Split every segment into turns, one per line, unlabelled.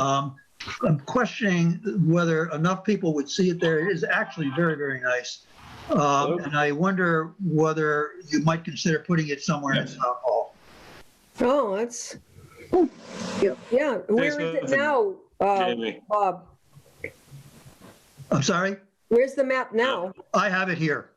Um, I'm questioning whether enough people would see it there. It is actually very, very nice. Um, and I wonder whether you might consider putting it somewhere in South Hall.
Oh, that's, yeah, yeah. where is
Thanks,
it now, uh,
Jamie.
Bob?
I'm sorry?
Where's the map now?
I have it here.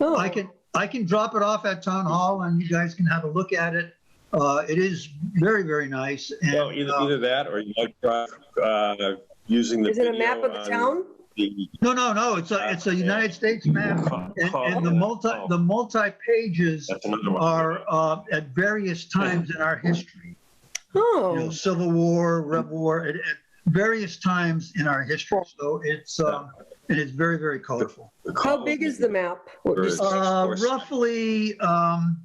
Oh,
I can, I can drop it off at Town Hall and you guys can have a look at it. Uh, it is very, very nice. and,
No, either,
uh,
either that or you might try, uh, using the
um, Is it
video.
a map of the
on
town?
the-
No, no, no, it's a, it's a United States map. And, and the multi, the multi-pages
That's another one.
are, uh, at various times in our history. you know,
oh,
Civil War, Rebel War, at, at various times in our history. So it's um, and it's very very colorful.
how big is the map?
Or is-
Just-
Uh, roughly, um,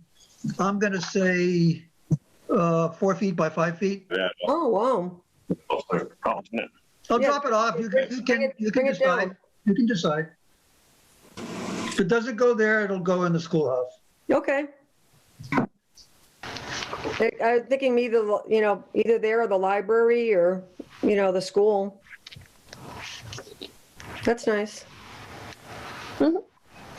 I'm going to say uh, four feet by five feet.
Yeah.
Oh, wow.
I'll
Yeah.
drop it off. You can you
Bring
can,
it-
you
bring
can
it
decide.
down.
You can decide. If it doesn't go there, it'll go in the schoolhouse.
Okay. I I was thinking either, you know, either there or the library or, you know, the school. That's nice.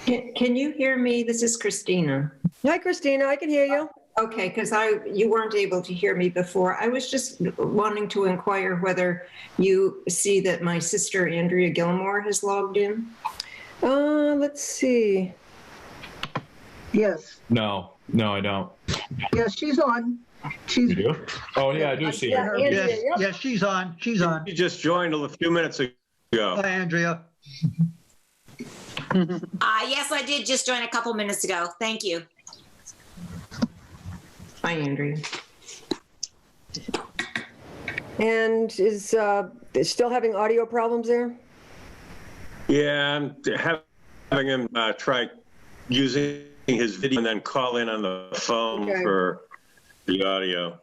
Can can you hear me? This is Christina.
Hi, Christina, I can hear you.
Okay, because I, you weren't able to hear me before. I was just wanting to inquire whether you see that my sister Andrea Gilmore has logged in?
Uh, let's see.
Yes,
No, no, I don't.
yes, she's on. She's,
do? Oh, yeah, I do see
Yeah,
her.
Andrea,
Yes,
yep.
yes, she's on. She's on.
You just joined a few minutes ago.
Hi, Andrea.
Uh, yes, I did just join a couple minutes ago. Thank you.
Hi, Andrea.
And is, uh, is still having audio problems there?
Yeah, I'm having him uh, try using his video and then call in on the phone
Okay.
for the audio.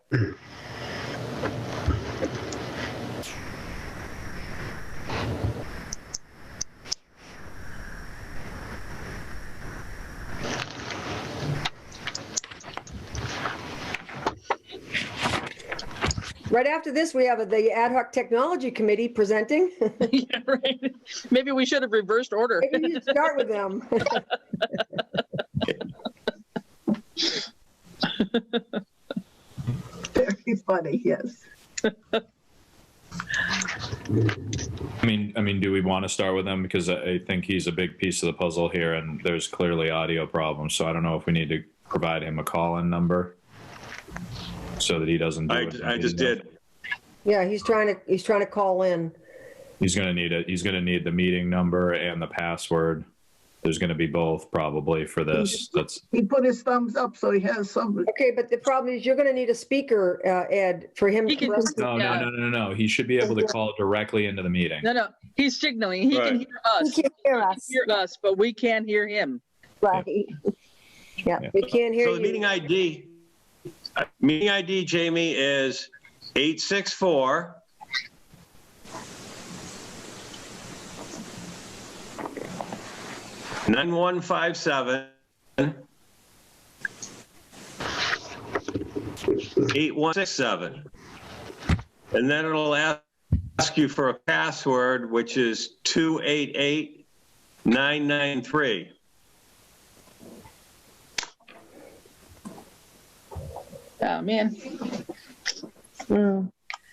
Right after this, we have the Ad hoc Technology Committee presenting.
Yeah, right. Maybe we should have reversed order.
Maybe you should start with them.
very funny, yes.
I mean, I mean, do we want to start with him because I, I think he's a big piece of the puzzle here, and there's clearly audio problems. So I don't know if we need to provide him a call-in number so that he doesn't. Do
I,
it.
I just did.
Yeah, he's trying to, he's trying to call in.
He's gonna need it. He's gonna need the meeting number and the password. There's gonna be both probably for this. That's
He put his thumbs up, so he has some,
Okay, but the problem is you're going to need a speaker, uh, Ed, for him.
He can
to-
just-
no,
Yeah.
no, no, no, no, no. He should be able to call directly into the meeting.
No, no, he's signaling. He
Right.
can hear us. He can
hear us,
hear us, but we can't hear him.
right? Yeah,
We can't hear
So the meeting
you.
ID, uh, meeting ID, Jamie, is 864. Nine one five seven. Eight one six seven. And then it'll a- ask you for a password, which is two eight eight nine nine three.
Oh, man.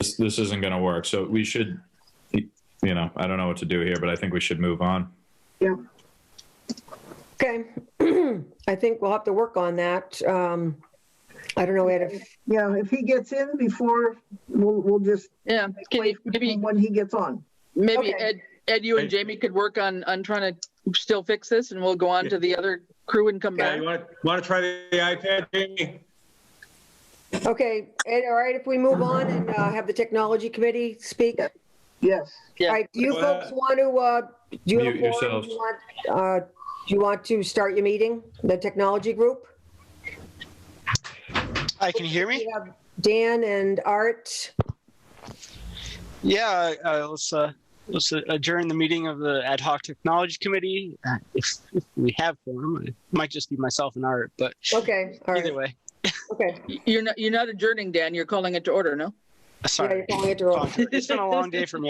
This, this isn't gonna work. So we should, you know, I don't know what to do here, but I think we should move on.
Okay. I think we'll have to work on that. Um, I don't know, Ed, if,
you know, if he gets in before, we'll, we'll just
Yeah, can
wait for
you, maybe,
him when he gets on.
Okay.
maybe Ed, Ed, you and
Hey.
Jamie could work on, on trying to still fix this and we'll go on to the other crew and come
Yeah,
back.
you want to, want to try the iPad, Jamie?
okay, Ed, all right, if we move on and uh, have the technology committee speak. All
Yes,
Yeah.
right, do you
Go
folks
ahead.
want to, uh, do you have a
Mute
forum?
yourselves.
Do you want, uh, Do you want to start your meeting, the technology group?
Hi, can you hear me?
We have Dan and Art.
Yeah, uh, let's, uh, let's adjourn the meeting of the Ad hoc Technology Committee. Uh, If, if we have forum, it might just be myself and Art, but
Okay, all right,
either way.
okay.
You're not, you're not adjourning, Dan. You're calling it to order, no? Sorry.
calling it the wrong-
Uh,
It's been a long day for me.